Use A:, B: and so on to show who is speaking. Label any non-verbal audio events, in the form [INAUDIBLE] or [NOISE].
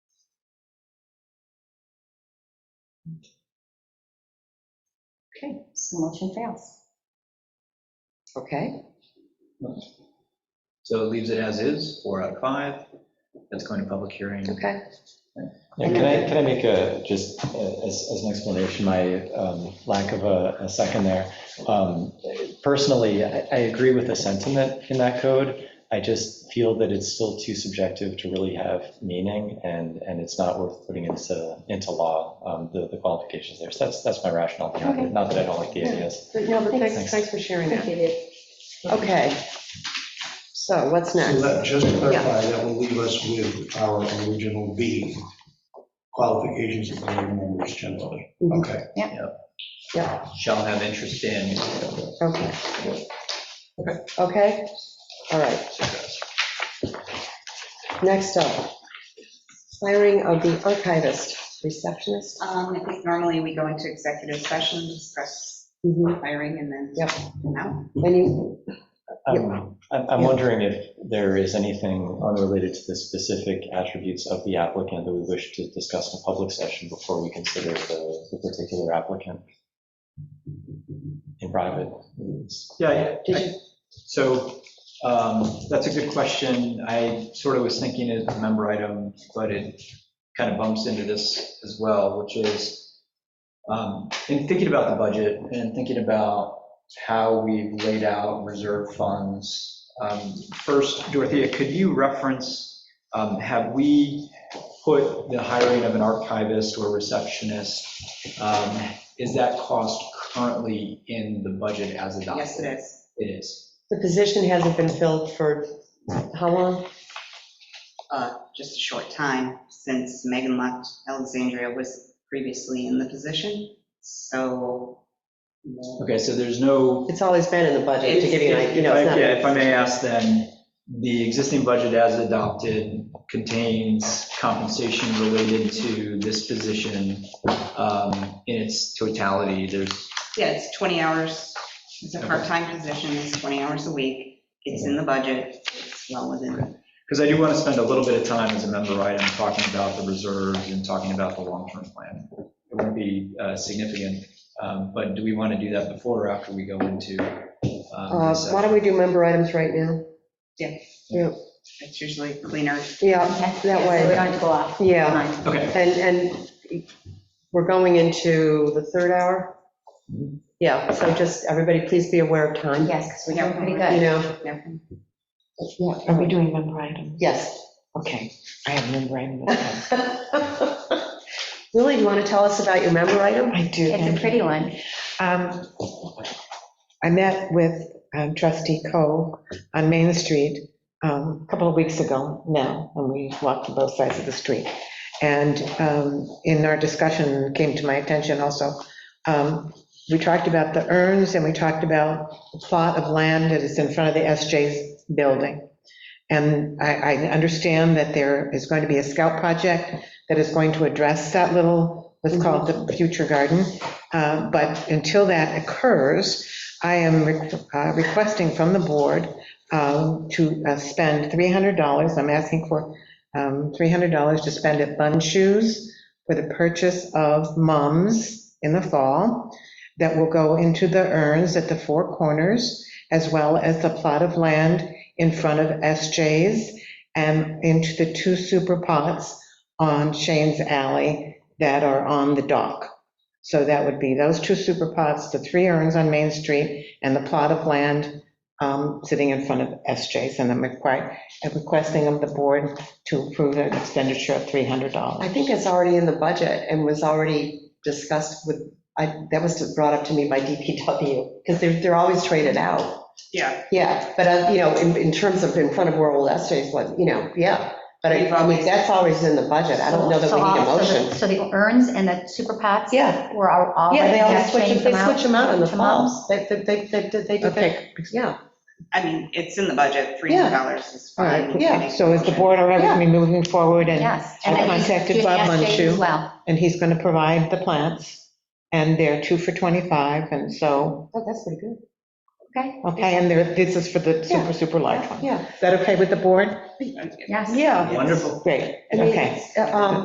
A: Okay, so motion fails.
B: Okay,
C: So it leaves it as is, four out of five. That's going to public hearing.
B: okay.
D: Yeah, Can I, can I make a, just a- as, as an explanation, my um, lack of a a second there? Um, Personally, I, I agree with the sentiment in that code. I just feel that it's still too subjective to really have meaning, and, and it's not worth putting into, into law, um, the, the qualifications there. So that's, that's my rationale behind it, not that I don't like the ideas.
B: But no, but thanks,
D: Thanks.
B: thanks for sharing that. Okay. So what's
E: So
B: next?
E: that, just to clarify, that will leave us with our original B, qualifications of board members generally.
B: Mhm.
E: Okay.
C: Shall have interest in.
B: Okay. Okay, all right. Next up, hiring of the archivist, receptionist.
A: Um, I think normally we go into executive session, discuss
B: Mhm.
A: hiring and then.
B: Yep.
A: come out.
B: Any,
D: Um, I'm, I'm
B: Yeah.
D: wondering if there is anything unrelated to the specific attributes of the applicant that we wish to discuss in a public session before we consider the, the particular applicant in private.
C: Yeah,
B: Did
C: yeah.
B: you-
C: So um, that's a good question. I sort of was thinking it as a member item, but it kind of bumps into this as well, which is um, in thinking about the budget and thinking about how we've laid out reserve funds. um, First, Dorothea, could you reference, um, have we put the hiring of an archivist or receptionist, um, is that cost currently in the budget as adopted?
A: Yes, it is.
C: It is.
B: The position hasn't been filled for how long?
A: Uh, Just a short time since Megan left, Alexandria was previously in the position, so.
C: Okay, so there's no,
B: It's always been in the budget, to give you an idea, you
C: if
B: know,
C: I,
B: it's not.
C: yeah, if I may ask then, the existing budget as adopted contains compensation related to this position um, in its totality. There's,
A: Yeah, it's 20 hours, it's a part-time position, it's 20 hours a week, it's in the budget, it's well within.
C: because I do want to spend a little bit of time as a member item talking about the reserves and talking about the long-term plan. It won't be uh, significant, um, but do we want to do that before or after we go into? um,
B: Uh,
C: this
B: Why don't we do member items right now?
A: Yeah.
B: Yeah.
A: It's usually cleaner.
B: Yeah,
F: That
B: way.
F: We don't have to go off.
B: yeah,
F: Fine.
C: Okay.
B: and, and we're going into the third hour? Yeah, so just, everybody, please be aware of time, you
F: Yes, because we're doing pretty good.
B: know?
A: Yeah.
B: Yeah,
G: Are we doing member items?
B: Yes. [LAUGHS]
G: Okay, I have member items.
B: Lily, do you want to tell us about your member item?
G: I do.
F: It's a pretty one.
G: Um, I met with um, trustee Coe on Main Street um, a couple of weeks ago now, and we walked to both sides of the street. And um, in our discussion, came to my attention also, um, we talked about the urns and we talked about the plot of land that is in front of the SJ's building. And I, I understand that there is going to be a scout project that is going to address that little, let's call it the future garden. Uh, But until that occurs, I am re- uh, requesting from the board um, to uh, spend $300. I'm asking for um, $300 to spend at Bun Shoes for the purchase of mums in the fall that will go into the urns at the four corners, as well as the plot of land in front of SJ's and into the two super pots on Shane's Alley that are on the dock. So that would be those two super pots, the three urns on Main Street, and the plot of land um, sitting in front of SJ's. And I'm requi- I'm requesting of the board to approve an expenditure of $300.
B: I think it's already in the budget and was already discussed with, I, that was just brought up to me by DPW, because they're, they're always traded out.
A: Yeah,
B: Yeah, but, uh, you know, in, in terms of in front of where old SJ's was, you know, yeah. But I, I mean, that's always in the budget. I don't know that
F: So
B: we need a
F: all- so the-
B: motion.
F: So the urns and the super pots?
B: Yeah.
F: Were all. all
B: Yeah, they
F: like
B: always
F: that,
B: switch,
F: change
B: they
F: them out?
B: switch them out in the
F: to
B: fall.
F: moms.
B: They, they, they, they they do that.
G: Okay,
B: Yeah,
A: I mean, it's in the budget, $300 is
G: all
A: fine.
G: right, yeah. So is the board all right with me moving forward and
F: Yes.
G: I
F: And then
G: contacted
F: do the
G: Bob
F: SJs
G: Munchu.
F: As well.
G: and he's going to provide the plants, and they're two for 25, and so,
B: Oh, that's pretty good.
F: Okay.
G: okay, and there, this is for the
B: Yeah.
G: super, super large one.
B: Yeah.
G: Is that okay with the board?
F: Yes.
A: Yes.
G: Great,
B: I mean,
G: okay.
B: it's, uh, um,